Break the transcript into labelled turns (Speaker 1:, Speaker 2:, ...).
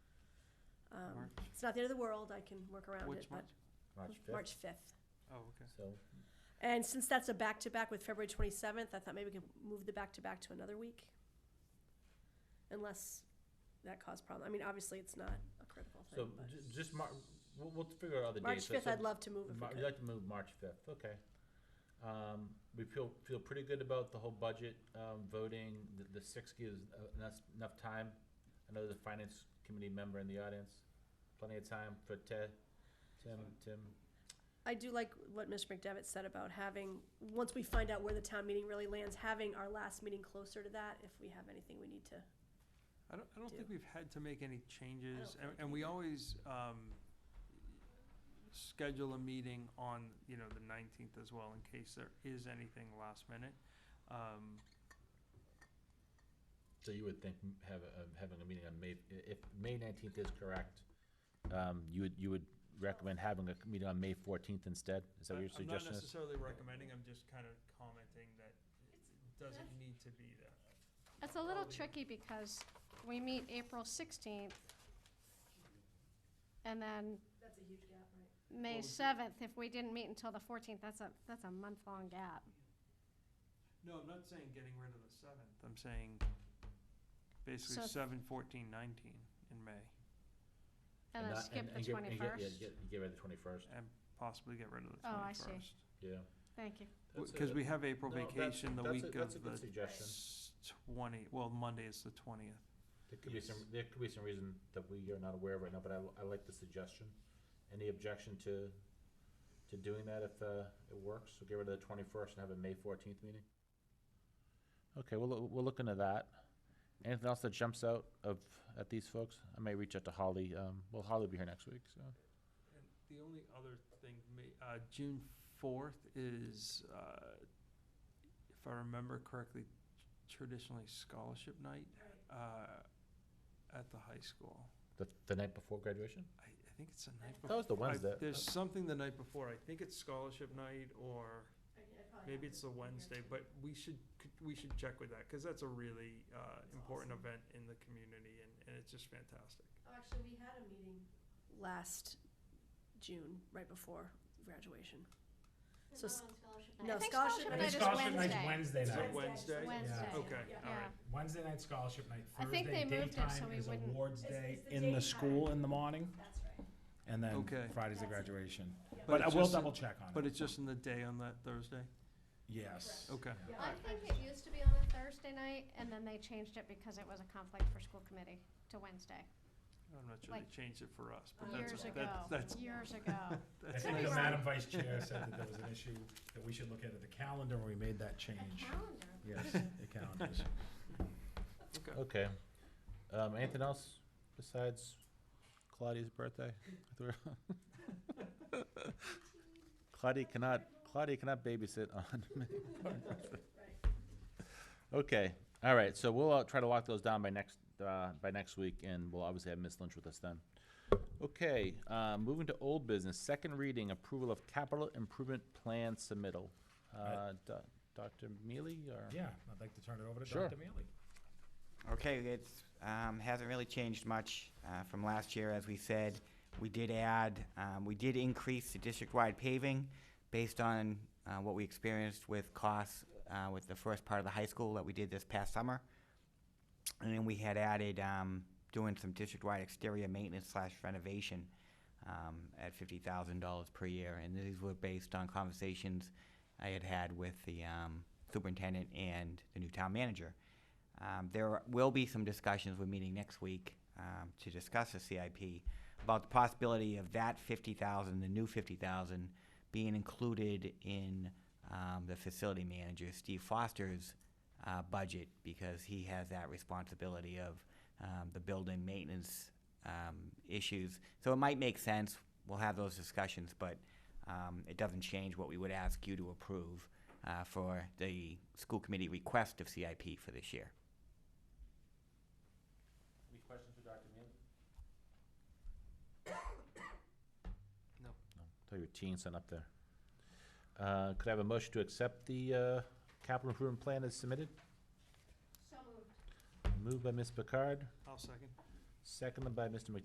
Speaker 1: March,
Speaker 2: Um, It's not the end of the world, I can work around it,
Speaker 1: which
Speaker 2: but.
Speaker 1: March?
Speaker 3: March
Speaker 2: March
Speaker 3: fifth,
Speaker 2: fifth.
Speaker 1: Oh, okay.
Speaker 3: so
Speaker 2: And since that's a back-to-back with February twenty-seventh, I thought maybe we could move the back-to-back to another week. Unless that caused problem, I mean, obviously, it's not a critical
Speaker 3: So
Speaker 2: thing, but.
Speaker 3: ju- just mar- we'll, we'll figure out other dates.
Speaker 2: March
Speaker 3: So-
Speaker 2: fifth,
Speaker 3: so
Speaker 2: I'd love to move if
Speaker 3: Mar-
Speaker 2: we
Speaker 3: You'd
Speaker 2: could.
Speaker 3: like to move March fifth, okay. Um, we feel, feel pretty good about the whole budget, um, voting, the, the six gives uh, enough, enough time. I know there's a finance committee member in the audience, plenty of time for Ted, Tim, Tim.
Speaker 2: I do like what Mr. McDevitt said about having, once we find out where the town meeting really lands, having our last meeting closer to that, if we have anything we need to.
Speaker 1: I don't, I don't think
Speaker 2: Do.
Speaker 1: we've had to make any changes, and,
Speaker 2: think
Speaker 1: and
Speaker 2: we
Speaker 1: we
Speaker 2: did.
Speaker 1: always, um, schedule a meeting on, you know, the nineteenth as well, in case there is anything last minute. Um,
Speaker 3: So you would think m- have, a- um, having a meeting on May, i- if May nineteenth is correct, um, you would, you would recommend having a c- meeting on May fourteenth instead? Is that what
Speaker 1: I-
Speaker 3: your suggestion
Speaker 1: I'm not
Speaker 3: is?
Speaker 1: necessarily recommending, I'm just kind of commenting that it doesn't need to be there.
Speaker 4: It's a little tricky because we meet April sixteenth, and then
Speaker 2: That's a huge gap, right?
Speaker 1: What
Speaker 4: May
Speaker 1: was it?
Speaker 4: seventh, if we didn't meet until the fourteenth, that's a, that's a month-long gap.
Speaker 1: No, I'm not saying getting rid of the seventh, I'm saying basically
Speaker 4: So-
Speaker 1: seven, fourteen, nineteen in May,
Speaker 4: And then
Speaker 3: not-
Speaker 4: skip
Speaker 3: and
Speaker 4: the
Speaker 3: get- and get- yeah,
Speaker 4: twenty-first.
Speaker 3: get- Get rid of the twenty-first,
Speaker 1: and possibly get rid of the
Speaker 4: Oh, I see.
Speaker 1: twenty-first.
Speaker 3: yeah.
Speaker 4: Thank you.
Speaker 3: That's a-
Speaker 1: Because we have April
Speaker 3: No, that's-
Speaker 1: vacation the
Speaker 3: that's a-
Speaker 1: week
Speaker 3: That's a
Speaker 1: of
Speaker 3: good
Speaker 1: the
Speaker 3: suggestion.
Speaker 1: twenty, well, Monday is the twentieth.
Speaker 3: There could be some, there could be some reason that we are not aware of right now, but I, I like the suggestion. Any objection to, to doing that if, uh, it works? So get rid of the twenty-first and have a May fourteenth meeting? Okay, we'll, loo- we'll look into that. Anything else that jumps out of, at these folks? I may reach out to Holly, um, well, Holly will be here next week, so.
Speaker 1: And the only other thing, may- uh, June fourth is, uh, if I remember correctly, traditionally scholarship night, uh, at the high school.
Speaker 3: The, the night before graduation?
Speaker 1: I, I think it's the night
Speaker 3: That
Speaker 1: before.
Speaker 3: was the Wednesday.
Speaker 1: There's something the night before, I think it's scholarship night or maybe it's the Wednesday, but we should, c- we should check with that, cause that's a really, uh, important
Speaker 2: awesome.
Speaker 1: event in the community and, and it's just fantastic.
Speaker 2: Actually, we had a meeting last June, right before graduation. So s-
Speaker 4: I
Speaker 2: No,
Speaker 4: think
Speaker 2: scholarship
Speaker 4: scholarship
Speaker 2: night
Speaker 4: night
Speaker 2: is
Speaker 4: is
Speaker 5: scholarship night's
Speaker 4: Wednesday.
Speaker 5: Wednesday
Speaker 1: Is it
Speaker 5: night.
Speaker 1: Wednesday?
Speaker 4: Wednesday.
Speaker 1: Okay,
Speaker 2: Yeah.
Speaker 1: all right.
Speaker 5: Wednesday night's scholarship night.
Speaker 4: I
Speaker 5: Thursday
Speaker 4: think they moved it so
Speaker 5: daytime
Speaker 4: we
Speaker 5: is
Speaker 4: wouldn't-
Speaker 5: awards
Speaker 2: It's-
Speaker 5: day
Speaker 2: it's the
Speaker 5: in the
Speaker 2: daytime.
Speaker 5: school in the morning,
Speaker 2: That's right.
Speaker 5: and then
Speaker 1: Okay.
Speaker 5: Friday's the
Speaker 2: That's it.
Speaker 5: graduation.
Speaker 2: Yeah.
Speaker 1: But
Speaker 5: But I
Speaker 1: it's
Speaker 5: will
Speaker 1: just in-
Speaker 5: double check on
Speaker 1: But
Speaker 5: it.
Speaker 1: it's just in the day on that Thursday?
Speaker 5: Yes.
Speaker 1: Okay.
Speaker 2: Yeah.
Speaker 4: I think it used to be on a Thursday night, and then they changed it because it was a conflict for school committee to Wednesday,
Speaker 1: I'm not sure
Speaker 4: Like,
Speaker 1: they changed it for us, but that's,
Speaker 4: years
Speaker 1: that's,
Speaker 4: ago,
Speaker 1: that's,
Speaker 4: years ago.
Speaker 5: I
Speaker 1: that's.
Speaker 4: could
Speaker 5: think
Speaker 4: be
Speaker 5: the
Speaker 4: wrong.
Speaker 5: Madam Vice Chair said that there was an issue that we should look at at the calendar, and we made that
Speaker 4: A
Speaker 5: change.
Speaker 4: calendar.
Speaker 5: Yes, the calendars.
Speaker 1: Okay.
Speaker 3: Okay. Um, anything else besides Claudia's birthday? Claudia cannot, Claudia cannot babysit on. Okay, all right, so we'll uh, try to lock those down by next, uh, by next week, and we'll obviously have Ms. Lynch with us then. Okay, uh, moving to old business, second reading, approval of capital improvement plan submittal. Uh, Do- Dr. Mealy, or?
Speaker 5: Yeah, I'd like to turn it over to
Speaker 3: Sure.
Speaker 5: Dr. Mealy.
Speaker 6: Okay, it's, um, hasn't really changed much, uh, from last year, as we said. We did add, um, we did increase the district-wide paving based on, uh, what we experienced with costs, uh, with the first part of the high school that we did this past summer. And then we had added, um, doing some district-wide exterior maintenance slash renovation, um, at fifty thousand dollars per year. And these were based on conversations I had had with the, um, superintendent and the new town manager. Um, there will be some discussions, we're meeting next week, um, to discuss the CIP, about the possibility of that fifty thousand, the new fifty thousand, being included in, um, the facility manager, Steve Foster's, uh, budget, because he has that responsibility of, um, the building maintenance, um, issues. So it might make sense, we'll have those discussions, but, um, it doesn't change what we would ask you to approve, uh, for the school committee request of CIP for this year.
Speaker 3: Any questions for Dr. Mealy?
Speaker 1: No.
Speaker 3: Throw your teens on up there. Uh, Could I have a motion to accept the uh, capital improvement plan as submitted?
Speaker 4: So moved.
Speaker 3: Moved by Ms. Picard,
Speaker 1: I'll second.
Speaker 3: seconded by Mr.